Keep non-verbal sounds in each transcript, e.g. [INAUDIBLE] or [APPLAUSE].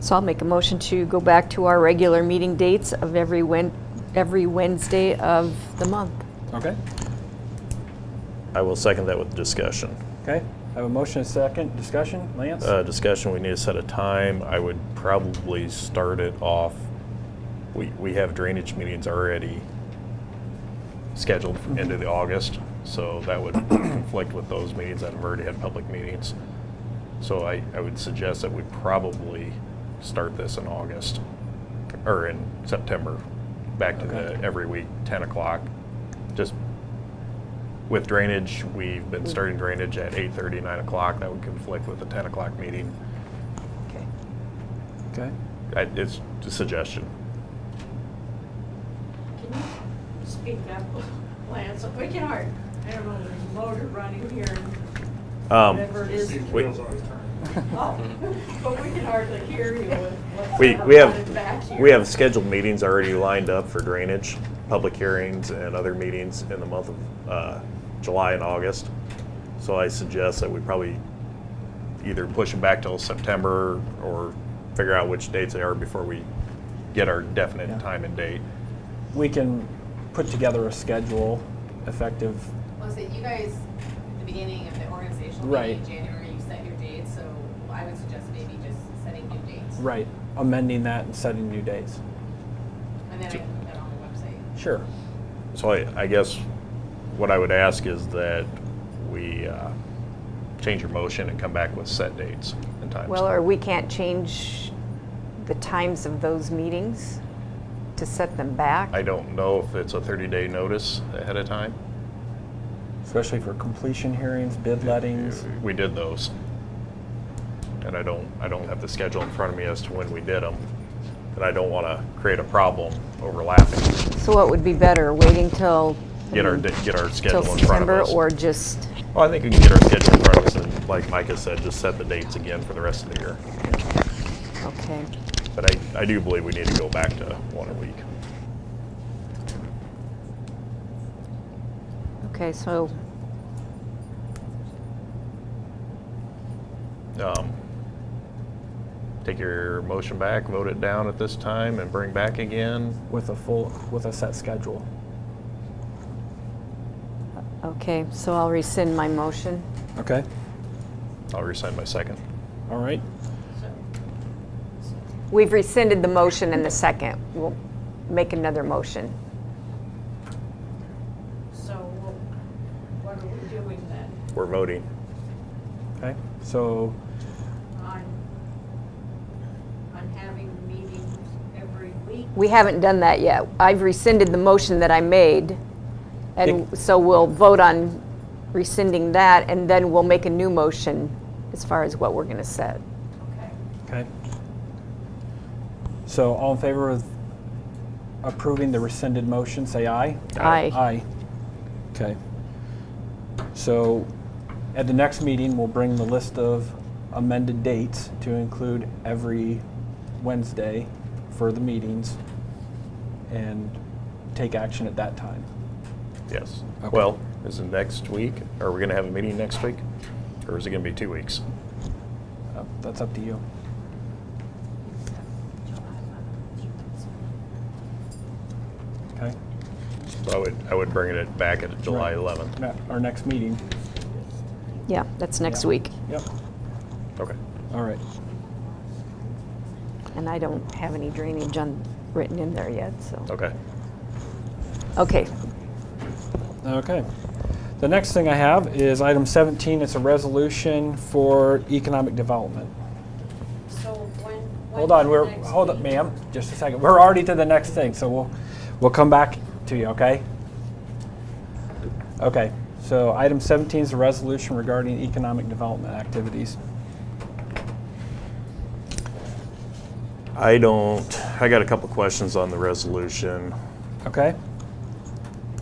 So I'll make a motion to go back to our regular meeting dates of every Wed, every Wednesday of the month. Okay, I will second that with discussion. okay. I have a motion, a second, discussion, Lance? Uh, discussion, we need to set a time. I would probably start it off. We, we have drainage meetings already scheduled for end of the August, so that would conflict with those meetings that have already had public meetings. So I, I would suggest that we probably start this in August, or in September, back to the every week, ten o'clock. Just with drainage, we've been starting drainage at eight thirty, nine o'clock, that would conflict with the ten o'clock meeting. Okay. Okay. I, it's a suggestion. Can you speak up, [LAUGHS] Lance? We can hard, I don't know, there's a motor running here, Um, whatever it is. we, Oh, But we can hardly hear you with what's we, we running back have, here. we have scheduled meetings already lined up for drainage, public hearings and other meetings in the month of, uh, July and August. So I suggest that we probably either push them back till September or figure out which dates they are before we get our Yeah. definite time and date. We can put together a schedule effective, Was it you guys, at the beginning of the organizational Right. meeting in January, you set your dates, so I would suggest maybe just setting new dates. right, amending that and setting new dates. And then I can put that on the website. Sure. So I, I guess what I would ask is that we uh, change your motion and come back with set dates and times. Well, or we can't change the times of those meetings to set them back. I don't know if it's a 30-day notice ahead of time. Especially for completion hearings, bid lettings. We did those. And I don't, I don't have the schedule in front of me as to when we did them. And I don't want to create a problem overlapping. So what would be better, waiting till? Get our, di- get our Mm-hmm. Till schedule in front of September us. or just, Well, I think we can get our schedule in front of us and like Micah said, just set the dates again for the rest of the year. okay. But I, I do believe we need to go back to one a week. Okay, so um, take your motion back, vote it down at this time, and bring back again. with a full, with a set schedule. Okay, so I'll rescind my motion. Okay. I'll resign my second. All right. We've rescinded the motion in the second. We'll make another motion. So what are we doing then? We're voting. Okay. So, On, on having meetings every week? We haven't done that yet. I've rescinded the motion that I made, and so we'll vote on rescinding that, and then we'll make a new motion as far as what we're going to set. Okay. okay. So all in favor of approving the rescinded motion, say aye. Aye. Aye. Okay. So at the next meeting, we'll bring the list of amended dates to include every Wednesday for the meetings and take action at that time. Yes. Okay. Well, is it next week? Are we going to have a meeting next week? Or is it going to be two weeks? Uh, That's up to you. Okay? So I would, I would bring it back at July Right. 11th. Ne- Our next meeting. Yeah, that's next Yeah. week, Yep. Okay. All right. and I don't have any drainage on, written in there yet, so. Okay. Okay, Okay. The next thing I have is item 17. It's a resolution for economic development. So when? when Hold on, the we're, next hold up, meeting? ma'am, just a second. We're already to the next thing, so we'll, we'll come back to you, okay? Okay, so item 17 is a resolution regarding economic development activities. I don't, I got a couple questions on the resolution. Okay?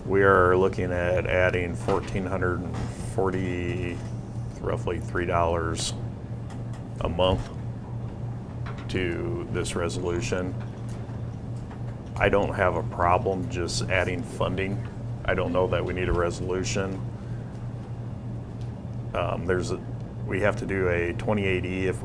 We are looking at adding 1,440, roughly $3 a month to this resolution. I don't have a problem just adding funding. I don't know that we need a resolution. Um, There's, a- we have to do a 28E if we